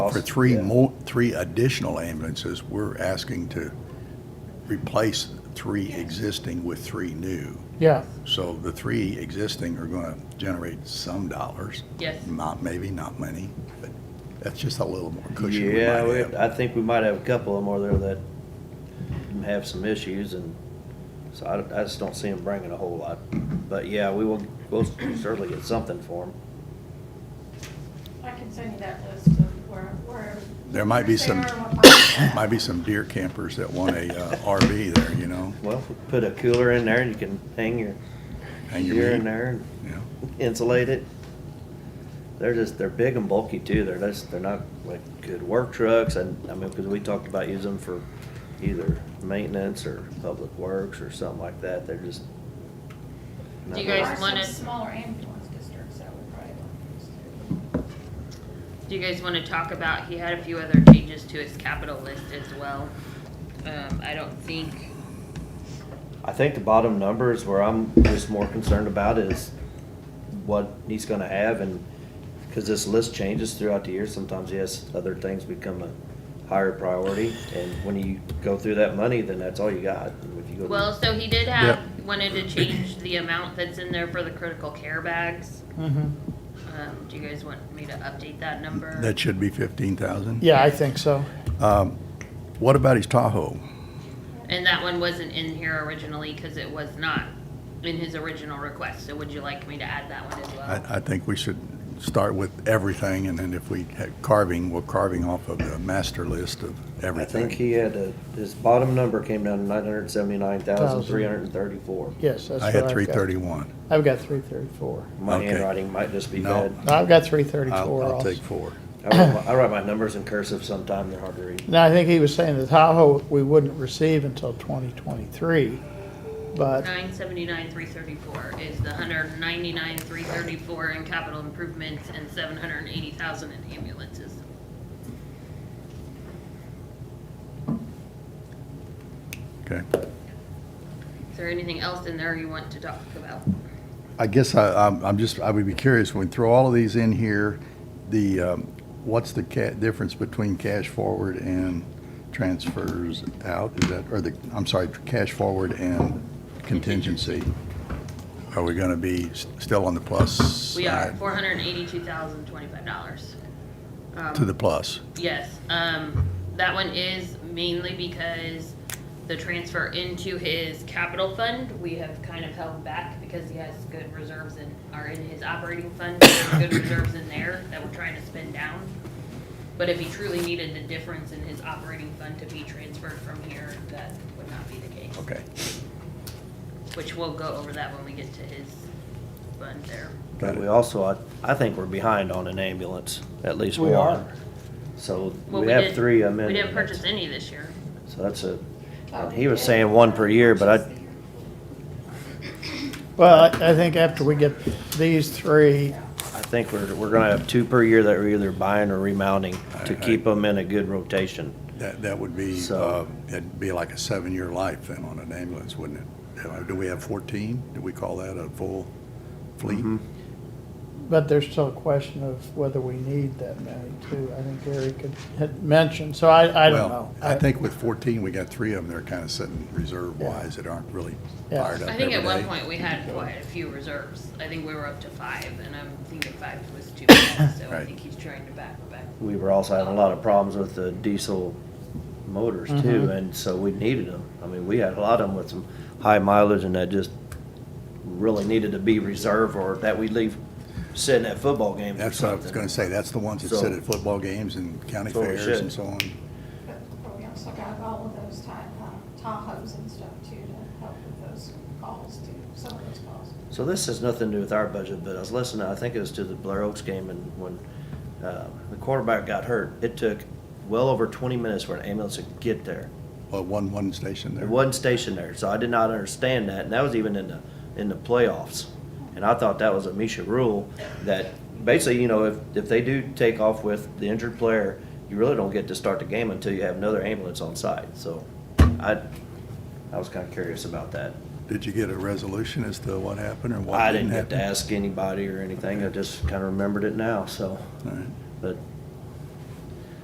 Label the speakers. Speaker 1: For three more, three additional ambulances, we're asking to replace three existing with three new.
Speaker 2: Yeah,
Speaker 1: So the three existing are gonna generate some dollars.
Speaker 3: Yes.
Speaker 1: Not, maybe not many, but that's just a little more cushion we
Speaker 4: Yeah,
Speaker 1: might
Speaker 4: we,
Speaker 1: have.
Speaker 4: I think we might have a couple of them over there that have some issues and so I, I just don't see them bringing a whole lot. But yeah, we will, we'll certainly get something for them.
Speaker 5: I can send you that list of where, where.
Speaker 1: There might be
Speaker 5: where they
Speaker 1: some-
Speaker 5: are and what part.
Speaker 1: Might be some deer campers that want a uh, RV there, you know?
Speaker 4: Well, put a cooler in there and you can hang your
Speaker 1: Hang your
Speaker 4: gear
Speaker 1: meat.
Speaker 4: in there and
Speaker 1: Yeah.
Speaker 4: insulate it. They're just, they're big and bulky too. They're just, they're not like good work trucks. And I mean, because we talked about using them for either maintenance or public works or something like that. They're just.
Speaker 3: Do
Speaker 4: not
Speaker 3: you guys
Speaker 5: There are some
Speaker 3: wanna-
Speaker 5: Smaller ambulance districts that would probably want these too.
Speaker 3: Do you guys want to talk about, he had a few other changes to his capital list as well. Um, I don't think,
Speaker 4: I think the bottom number is where I'm just more concerned about is what he's gonna have and, cause this list changes throughout the year. Sometimes, yes, other things become a higher priority. And when you go through that money, then that's all you got. If you go to-
Speaker 3: well, so he did have, wanted to change the amount that's in there for the critical care bags.
Speaker 2: mhm.
Speaker 3: Um, do you guys want me to update that number?
Speaker 1: That should be fifteen thousand. Um,
Speaker 2: yeah, I think so.
Speaker 1: What about his Tahoe?
Speaker 3: And that one wasn't in here originally because it was not in his original request, so would you like me to add that one as well?
Speaker 1: I, I think we should start with everything, and then if we had carving, we're carving off of the master list of
Speaker 4: I
Speaker 1: everything.
Speaker 4: think he had a, his bottom number came down to nine hundred seventy-nine thousand, three hundred and thirty-four.
Speaker 2: Yes, that's what
Speaker 1: I
Speaker 2: I've
Speaker 1: had
Speaker 2: got.
Speaker 1: three thirty-one.
Speaker 2: I've got three thirty-four.
Speaker 4: My
Speaker 1: Okay.
Speaker 4: handwriting might just be
Speaker 1: No.
Speaker 4: bad.
Speaker 2: I've got three
Speaker 1: I'll,
Speaker 2: thirty-four
Speaker 1: I'll
Speaker 2: also.
Speaker 1: take four.
Speaker 4: I write my- I write my numbers in cursive sometime, they're hard to read.
Speaker 2: Now, I think he was saying the Tahoe we wouldn't receive until twenty twenty-three, but,
Speaker 3: Nine seventy-nine, three thirty-four is the hundred ninety-nine, three thirty-four in capital improvements and seven hundred and eighty thousand in ambulances.
Speaker 1: Okay.
Speaker 3: Is there anything else in there you want to talk about?
Speaker 1: I guess I, I'm, I'm just, I would be curious, when we throw all of these in here, the, um, what's the ca, difference between cash forward and transfers out? Is that, or the, I'm sorry, cash forward and contingency? Are we gonna be s- still on the plus
Speaker 3: We are
Speaker 1: side?
Speaker 3: four hundred and eighty-two thousand, twenty-five dollars. Um,
Speaker 1: To the plus?
Speaker 3: Yes, um, that one is mainly because the transfer into his capital fund, we have kind of held back because he has good reserves in, are in his operating fund, there are good reserves in there that we're trying to spend down. But if he truly needed the difference in his operating fund to be transferred from here, that would not be the case,
Speaker 1: Okay.
Speaker 3: which we'll go over that when we get to his fund there.
Speaker 1: Got
Speaker 4: But
Speaker 1: it.
Speaker 4: we also, I, I think we're behind on an ambulance, at least
Speaker 2: We
Speaker 4: we
Speaker 2: are.
Speaker 4: are. So
Speaker 3: Well,
Speaker 4: we
Speaker 3: did-
Speaker 4: have three
Speaker 3: We didn't purchase
Speaker 4: amendments.
Speaker 3: any this year.
Speaker 4: So that's a,
Speaker 5: Oh,
Speaker 4: he was
Speaker 5: yeah.
Speaker 4: saying one per year, but I,
Speaker 2: well, I I think after we get these three,
Speaker 4: I think we're, we're gonna have two per year that we're either buying or remounting to
Speaker 1: I- I-
Speaker 4: keep them in a good rotation.
Speaker 1: That, that would be, uh,
Speaker 4: So-
Speaker 1: it'd be like a seven-year life then on an ambulance, wouldn't it? Uh, Do we have fourteen? Do we call that a full fleet?
Speaker 4: Mm-hmm.
Speaker 2: but there's still a question of whether we need that many too. I think Gary could, had mentioned, so I, I don't know.
Speaker 1: Well, I think with fourteen, we got three of them that are kind of sitting reserve-wise that aren't really
Speaker 2: Yeah.
Speaker 1: fired up
Speaker 3: I
Speaker 1: every
Speaker 3: think at one
Speaker 1: day.
Speaker 3: point we had quite a few reserves. I think we were up to five, and I'm thinking five was too many, so I
Speaker 1: Right.
Speaker 3: think he's trying to back back.
Speaker 4: We were also having a lot of problems with the diesel motors too, and so we needed them. I mean, we had a lot of them with some high mileage and that just really needed to be reserved or that we leave sitting at football games or
Speaker 1: That's what I was
Speaker 4: something.
Speaker 1: gonna say, that's the ones that
Speaker 4: So-
Speaker 1: sit at football games and county
Speaker 4: So we
Speaker 1: fairs
Speaker 4: should.
Speaker 1: and so on.
Speaker 5: But but we also got all of those Ti- uh, Tahoes and stuff too to help with those calls too, some of those calls.
Speaker 4: So this has nothing to do with our budget, but I was listening, I think it was to the Blair Oaks game and when, uh, the quarterback got hurt, it took well over twenty minutes for an ambulance to get there.
Speaker 1: Well, one, one station there.
Speaker 4: It wasn't stationed there, so I did not understand that, and that was even in the, in the playoffs. And I thought that was a Misha rule, that basically, you know, if, if they do take off with the injured player, you really don't get to start the game until you have another ambulance on site, so I, I was kinda curious about that.
Speaker 1: Did you get a resolution as to what happened or what
Speaker 4: I
Speaker 1: didn't
Speaker 4: didn't have to
Speaker 1: happen?
Speaker 4: ask anybody or anything, I just kinda remembered it now, so,
Speaker 1: All right.
Speaker 4: but